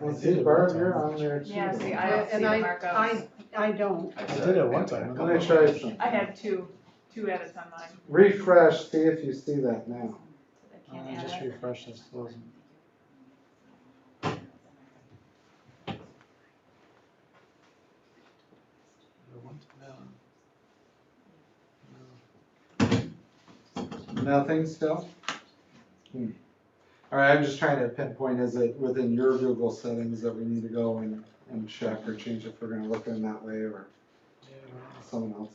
Well, see, Barb, you're on there too. Yeah, see, I don't see the And I- markups. I, I don't. I did it one time. I'm gonna try some. I had two, two edits on mine. Refresh, see if you see that now. but I Uh, can't add Just it. refresh this, those- Nothing still? Hmm. All right, I'm just trying to pinpoint, is it within your Google settings that we need to go and, and check or change if we're gonna look in that way or someone else's?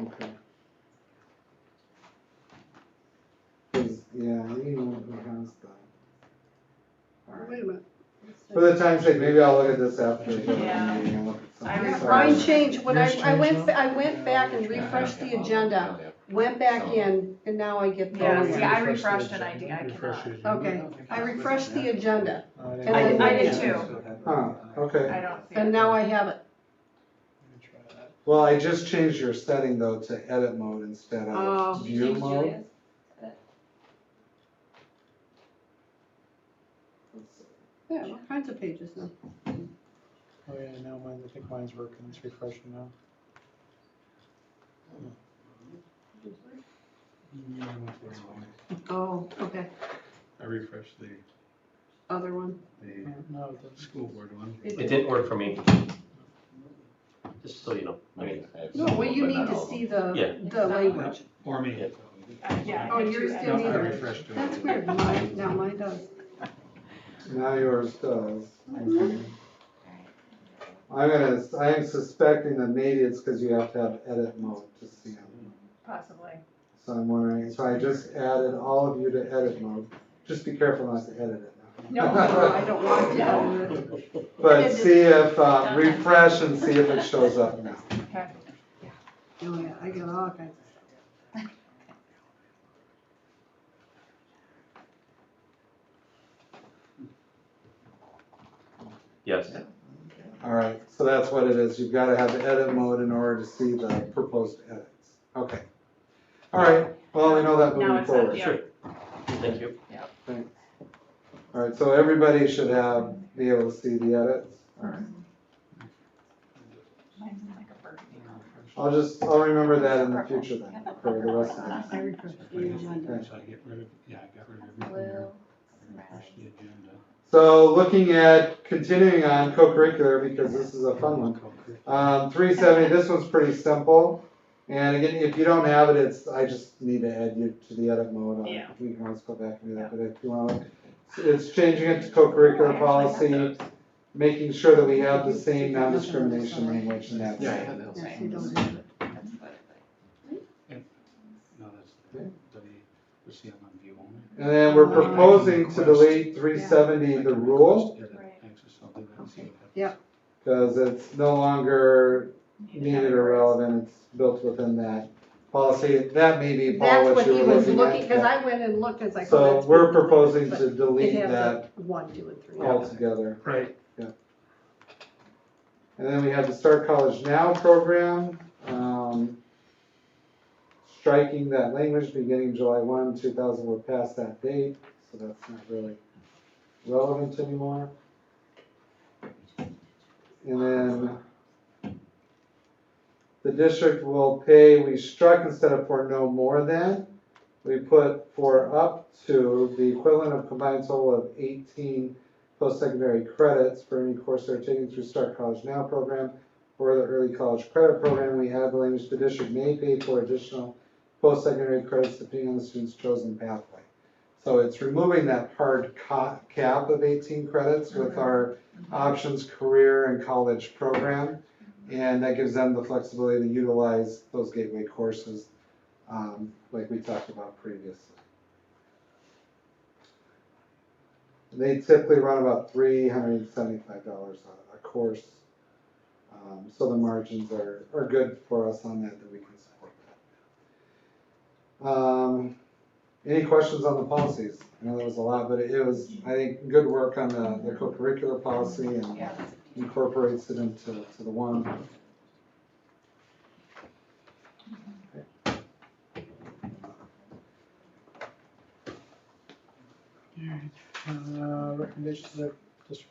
Okay. 'Cause, yeah, you know who has that. All right. Wait a minute. For the time's sake, maybe I'll look at this after. the meeting Yeah. and look at I something. remember- Sorry. Mine changed, when I, Yours I went, changed I went back and refreshed the agenda, went back in, and now I get Yeah, see, going. I Refresh the refreshed and I, agenda. did- I Refresh cannot. the agenda. Okay, I refreshed the agenda, Uh, I didn't- I did- I did too. uh, Huh, I okay. don't see and it. now I have it. Well, I just changed your setting though to edit mode instead Oh. of view mode. Yeah, all kinds of pages now. Oh, yeah, now mine, I think mine's working, it's refreshing now. Oh, okay, I refreshed the, other one. the No, it doesn't. school board one. It It did- didn't work for me. Just so you know, I mean, No, well, you need to see the, Yeah. the language. Or me. Uh, Yeah. Oh, I had yours two didn't edits. No, I either. refreshed it. That's weird, mine, now mine does. Now yours does. Mhm. Okay. I'm gonna, I am suspecting that maybe it's because you have to have edit mode to see them. Possibly. So I'm wondering, so I just added all of you to edit mode. Just be careful not to edit it now. No, no, I don't want to. know. But It is- see if, uh, refresh and see if it shows up now. Okay. Oh, yeah, I get all kinds of stuff. yes. All right, so that's what it is. You've got to have the edit mode in order to see the proposed edits. Okay. All right, well, we know that Now moving it's at forward. the Sure. Thank you. All right, so everybody should have, be able to see the edits. Mm-hmm. All right. Mine's like a burgundy. I'll just, I'll remember that in the future then, for the rest of us. I refreshed the agenda. So I get rid of, yeah, I got rid of everything there. I refreshed the agenda. So looking at, continuing on co-curricular, because this is a fun one. Um, three seventy, this one's pretty simple. And again, if you don't have it, it's, I just need to add you to the edit mode. on it. Yeah. We can always go back and do that, but if you want, it's changing it to co-curricular Oh, I actually policy, making sure that we have the same non-discrimination language in that. Yeah, yeah, that's, Yes, you don't have it. no, that's, W, we see them on view only. And then we're proposing to delete three I seventy, can the request rule, edit Right. access, I'll do that and see Okay. what happens. Yep. because it's no longer Need to needed have or it. relevant, it's built within that policy. That may be, Paul, That's what what you he were was looking at. looking, because I went and looked, it's like. oh, So that's we're good. proposing But to delete It has that a one, two, and three. altogether. Right. And then we have the Start College Now program, um, striking that language beginning July one, two thousand, we're past that date, so that's not really relevant anymore. And then the district will pay, we struck instead of for no more than, we put for up to the equivalent of combined total of eighteen post-secondary credits for any course they're taking through Start College Now program or the Early College Credit Program. We add the language, the district may pay for additional post-secondary credits depending on the student's chosen pathway. So it's removing that hard ca- cap of 18 credits with our options, career, and college program. And that gives them the flexibility to utilize those gateway courses um, like we talked about previously. They typically run about three hundred and seventy-five dollars a, a course. Um, so the margins are, are good for us on that, that we can support that. Um, any questions on the policies? I know there was a lot, but it was, I think, good work on the, the co-curricular policy and Yeah. incorporates it into, to the one. Uh, recommendations of district